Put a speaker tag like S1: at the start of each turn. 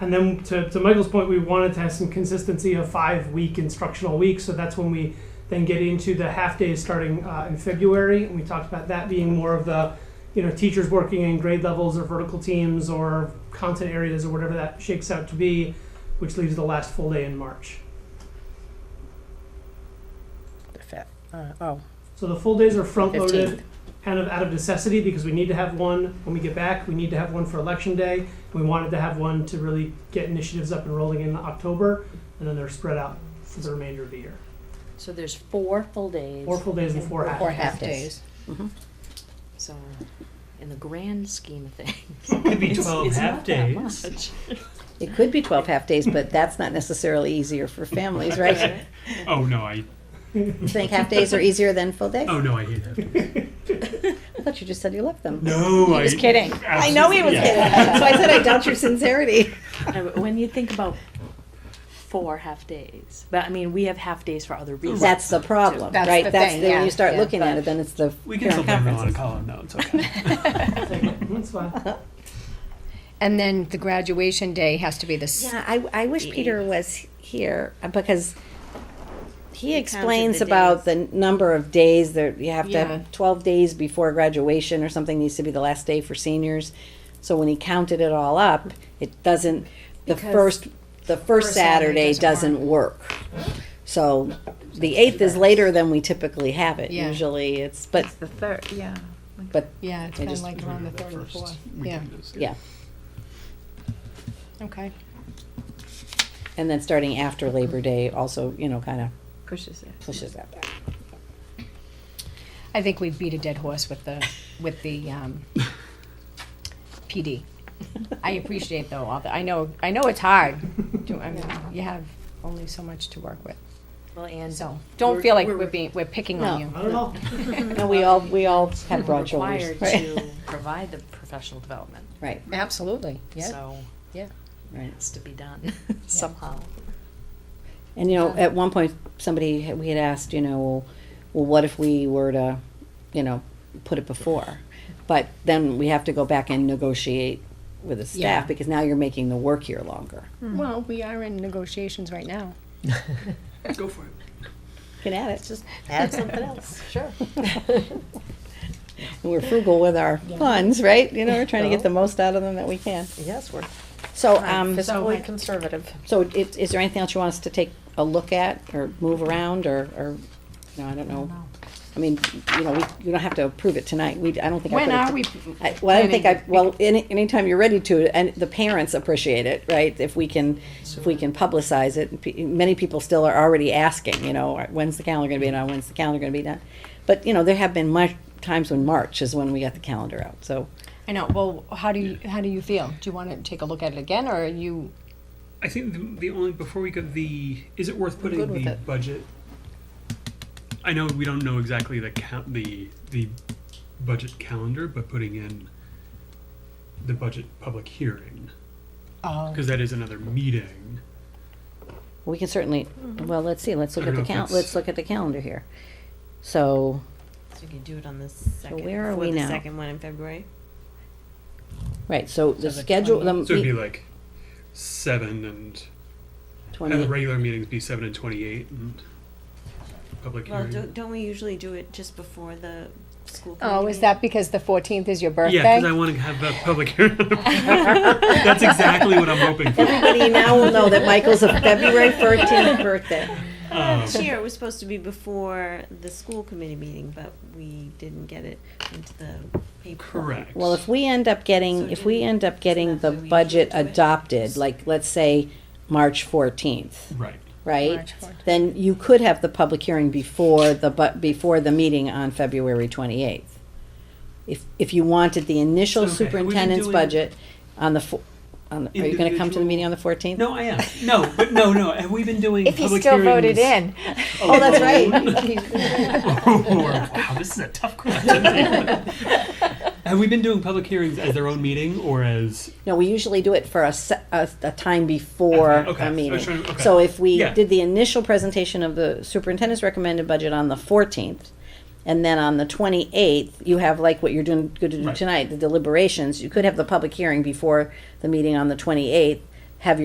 S1: And then to, to Michael's point, we wanted to have some consistency of five week instructional weeks. So that's when we then get into the half days starting uh, in February. And we talked about that being more of the, you know, teachers working in grade levels or vertical teams or content areas or whatever that shakes out to be, which leaves the last full day in March.
S2: The fifth, uh, oh,
S1: So the full days are front
S2: fifteenth.
S1: loaded, kind of out of necessity because we need to have one when we get back. We need to have one for election day. We wanted to have one to really get initiatives up and rolling in October, and then they're spread out for the remainder of the year.
S3: So there's four full days.
S1: Four full days and four half.
S2: Four
S1: days.
S2: half days. Mm-hmm.
S3: So, in the grand scheme of things.
S4: Could be
S3: it's-
S4: 12
S3: it's
S4: half
S3: not that
S4: days.
S3: much.
S2: It could be twelve half days, but that's not necessarily easier for families, right?
S4: Oh no, I
S2: You think half days are easier than full days?
S4: oh no, I hate that.
S2: I thought you just said you loved them.
S4: No, I
S2: Just kidding. I know he was
S4: Yeah.
S2: kidding. So I said I doubt your sincerity.
S3: No, but When you think about four half days, but I mean, we have half days for other reasons.
S2: That's the problem,
S5: That's
S2: right?
S5: the
S2: That's
S5: thing,
S2: the- When
S5: yeah,
S2: you start
S5: yeah.
S2: looking at it, then it's the
S4: We can still
S2: parent
S4: put everyone on a
S2: conferences.
S4: column. No, it's okay.
S1: That's fine.
S5: And then the graduation day has to be the s-
S2: Yeah, I, I wish Peter was here uh, because he
S3: He counted
S2: explains
S3: the
S2: about
S3: days.
S2: the number of days that you have to
S5: Yeah.
S2: have twelve days before graduation or something needs to be the last day for seniors. So when he counted it all up, it doesn't, the
S5: Because
S2: first, the first
S5: first
S2: Saturday
S5: Saturday doesn't
S2: doesn't work. So the eighth is later than we typically have it.
S5: Yeah.
S2: Usually it's, but,
S6: The third, yeah.
S2: but,
S5: yeah, it's
S2: I
S5: been
S2: just-
S5: like around the third or fourth. Yeah,
S2: yeah.
S5: okay.
S2: And then starting after Labor Day also, you know, kind of
S6: Pushes it.
S2: pushes that back.
S5: I think we beat a dead horse with the, with the, um, PD. I appreciate though, all the, I know, I know it's hard. Do, I mean, you have only so much to work with,
S3: Well, and
S5: so don't
S3: we're-
S5: feel like
S3: we're-
S5: we're being, we're picking on
S2: No.
S5: you.
S1: I don't know.
S2: No, we all, we all have
S3: um, we're
S2: broad shoulders.
S3: Required to provide the professional development,
S2: Right,
S5: Absolutely, yeah.
S3: so
S2: right.
S3: it's to be done somehow.
S2: And, you know, at one point, somebody, had- we had asked, you know, well, well, what if we were to, you know, put it before? But then we have to go back and negotiate with the
S5: Yeah.
S2: staff, because now you're making the work here longer.
S5: Well, we are in negotiations right now.
S4: Go for it.
S2: Can add it, just add something else, sure. And we're frugal with our funds, right? You know, we're trying to get the most out of them that we can.
S7: Yes, we're
S2: So, um,
S7: fiscally conservative.
S2: so is, is there anything else you want us to take a look at, or move around, or, or, no, I don't know. I mean, you know, we, you don't have to approve it tonight, we, I don't think I
S5: When
S2: put it
S5: are
S2: to-
S5: we
S2: I- Well, I don't think I,
S5: planning?
S2: well, any, anytime you're ready to, and the parents appreciate it, right? If we can, if we can publicize it, and pe- many people still are already asking, you know, when's the calendar gonna be done, when's the calendar gonna be done? But, you know, there have been much, times when March is when we got the calendar out, so.
S5: I know, well, how do you, how do you feel? Do you wanna take a look at it again, or are you?
S4: I think the, the only before we go the is it worth putting
S7: good with
S4: the
S7: it.
S4: budget? I know we don't know exactly the count the the budget calendar, but putting in the budget public hearing
S5: Oh.
S4: because that is another meeting.
S2: We can certainly,
S5: Mm-hmm.
S2: well, let's see, let's
S4: I
S2: look at
S4: don't
S2: the
S4: know if
S2: cal,
S4: that's-
S2: let's look at the calendar here. So,
S7: So you could do it on the second,
S2: where are
S7: before
S2: we
S7: the
S2: now?
S7: second one in February.
S2: right, so the
S5: So the
S2: schedule,
S5: 20th.
S4: So it'd be
S2: the,
S4: like seven and have the
S2: twenty,
S4: regular meetings be seven and twenty eight and public
S7: Well,
S4: hearing.
S7: do- don't we usually do it just before the school committee?
S5: Oh, is that because the fourteenth is your
S4: Yeah,
S5: birthday?
S4: because I want to have the public hearing. That's exactly what I'm hoping for.
S2: everybody now will know that Michael's a February thirteenth birthday.
S4: Um,
S7: Uh, This year, it was supposed to be before the school committee meeting, but we didn't get it into the paper.
S4: correct.
S2: Well, if we end up
S7: So
S2: getting, if we
S7: do-
S2: end up getting
S7: that's
S2: the
S7: why we
S2: budget
S7: usually do it.
S2: adopted, like, let's say, March fourteenth,
S4: right.
S2: right?
S5: March 14th.
S2: Then you could have the public hearing before the, but, before the meeting on February twenty-eighth. If, if you wanted the initial
S4: Okay, are we
S2: superintendent's
S4: doing-
S2: budget on the fo- on, the- are you gonna come to the meeting on the fourteenth?
S4: No, I am. No, but no, no. Have we been doing
S5: If he
S4: public
S5: still voted
S4: hearings
S5: in.
S2: Oh, that's right.
S4: alone? Or- Oh, wow, this is a tough question. Have we been doing public hearings as their own meeting or as
S2: No, we usually do it for a, se- a, a time before
S4: Okay, I
S2: a
S4: was
S2: meeting.
S4: trying to- okay.
S2: So if we
S4: Yeah.
S2: did the initial presentation of the superintendent's recommended budget on the 14th, and then on the 28th, you have like what you're doing, good to do
S4: Right.
S2: tonight, the deliberations. You could have the public hearing before the meeting on the 28th,